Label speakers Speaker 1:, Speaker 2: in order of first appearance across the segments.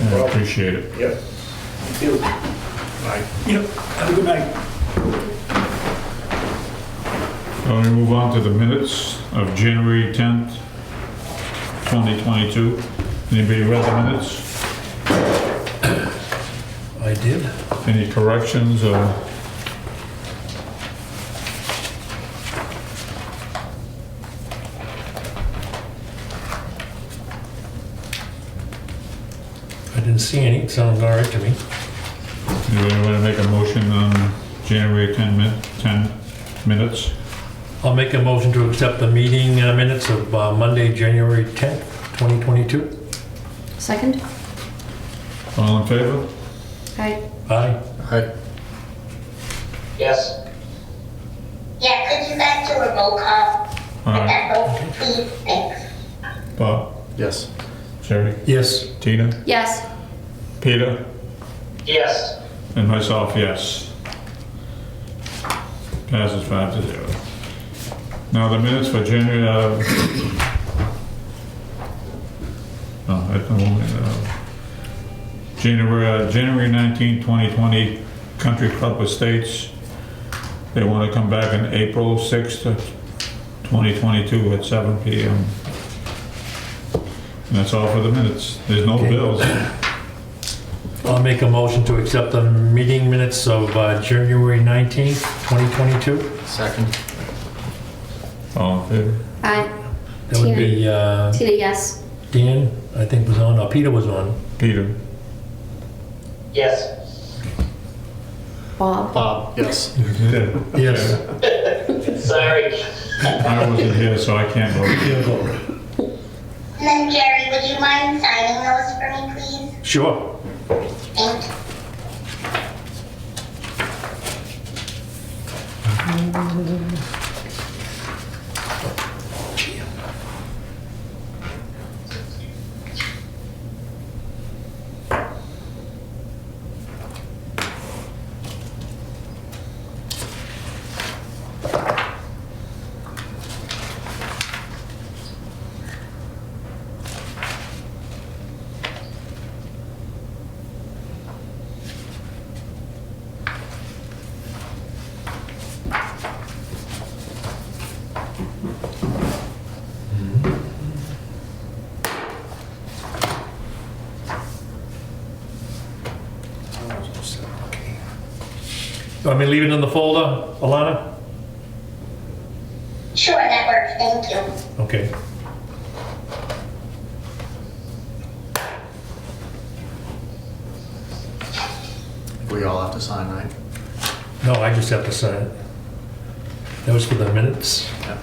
Speaker 1: I
Speaker 2: problem.
Speaker 1: appreciate it.
Speaker 2: Yep. Thank you. Bye.
Speaker 3: Yep, have a good night.
Speaker 1: Let me move on to the minutes of January 10th, 2022. Anybody read the minutes?
Speaker 4: I did.
Speaker 1: Any corrections or?
Speaker 4: I didn't see any. Sounds all right to me.
Speaker 1: Anybody want to make a motion on January 10 min, 10 minutes?
Speaker 4: I'll make a motion to accept the meeting uh, minutes of uh, Monday, January 10th, 2022.
Speaker 5: Second?
Speaker 1: All in favor?
Speaker 5: Aye.
Speaker 4: Aye.
Speaker 6: Yes.
Speaker 7: Yeah, could you guys do a roll call?
Speaker 1: All right,
Speaker 7: That vote, please, thanks.
Speaker 1: Bob,
Speaker 2: Yes.
Speaker 1: Jerry,
Speaker 4: Yes.
Speaker 1: Tina,
Speaker 5: Yes.
Speaker 1: Peter,
Speaker 6: Yes.
Speaker 1: and myself, yes. Passes five to zero. Now the minutes for January, uh... No, Oh, I don't, want it, uh... January, uh, January 19, 2020, Country Club Estates. They want to come back in April 6th, of 2022 at 7 PM. And that's all for the minutes. There's no
Speaker 4: Okay.
Speaker 1: bills.
Speaker 4: I'll make a motion to accept the meeting minutes of uh, January 19th, 2022.
Speaker 2: Second.
Speaker 1: All in favor?
Speaker 5: Aye.
Speaker 4: That would be uh,
Speaker 5: Tina, yes.
Speaker 4: Dan, I think was on, or Peter was on.
Speaker 1: Peter?
Speaker 6: Yes.
Speaker 5: Bob?
Speaker 2: Bob. Yes.
Speaker 4: Yes.
Speaker 6: Sorry.
Speaker 1: I wasn't here, so I can't vote.
Speaker 7: And then Jerry, would you mind signing those for me, please?
Speaker 4: Sure.
Speaker 7: Thank you.
Speaker 4: You want me to leave it in the folder, Alana?
Speaker 7: Sure, that works, thank you.
Speaker 4: Okay.
Speaker 2: We all have to sign, right?
Speaker 4: No, I just have to sign it. That was for the minutes.
Speaker 2: Yeah.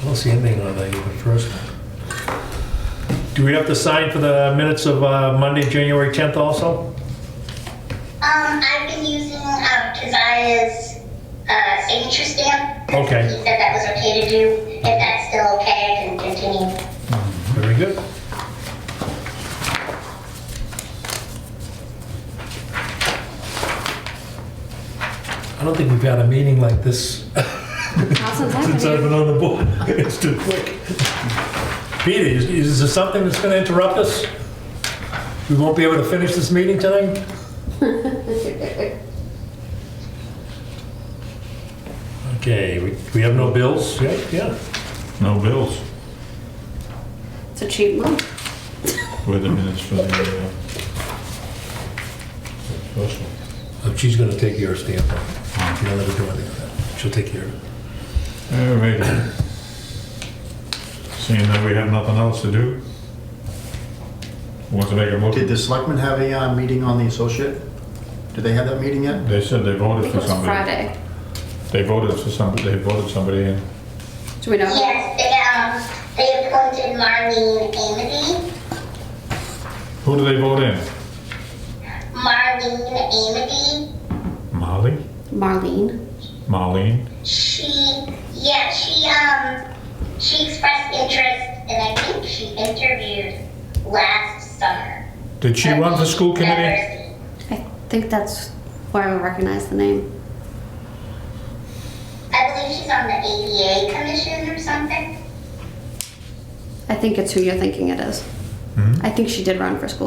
Speaker 4: I don't see anything on that even first one. Do we have to sign for the minutes of uh, Monday, January 10th also?
Speaker 7: Um, I've been using, um, Keziah's, uh, signature stamp.
Speaker 4: Okay.
Speaker 7: He said that was okay to do. If that's still okay, I can continue.
Speaker 4: Very good. I don't think we've had a meeting like this
Speaker 5: Awesome.
Speaker 4: since I've been on the board. It's too quick. Peter, is- is there something that's going to interrupt us? We won't be able to finish this meeting tonight? Okay, we we have no bills? Yeah, yeah.
Speaker 1: No bills
Speaker 5: It's a cheap month.
Speaker 1: with the minutes for the, uh... special.
Speaker 4: Oh, She's going to take your stamp. You don't have to do anything with that. She'll take care of it.
Speaker 1: All right. Seeing that we have nothing else to do? Want to make a
Speaker 2: Did
Speaker 1: motion?
Speaker 2: the selectmen have a uh, meeting on the associate? Did they have that meeting yet?
Speaker 1: They said they
Speaker 5: I
Speaker 1: voted
Speaker 5: think
Speaker 1: for
Speaker 5: it was
Speaker 1: somebody.
Speaker 5: Friday.
Speaker 1: They voted for somebody, they voted somebody in.
Speaker 5: Do we know?
Speaker 7: Yes, they, um, they appointed Marlene Amity.
Speaker 1: Who do they vote in?
Speaker 7: Marlene Amity.
Speaker 1: Molly?
Speaker 5: Marlene?
Speaker 1: Marlene?
Speaker 7: She, yeah, she, um, she expressed interest, and I think she interviewed last summer.
Speaker 1: Did she run for school committee?
Speaker 5: I think that's where I would recognize the name.
Speaker 7: I believe she's on the ADA commission or something.
Speaker 5: I think it's who you're thinking it is. I think she did run for school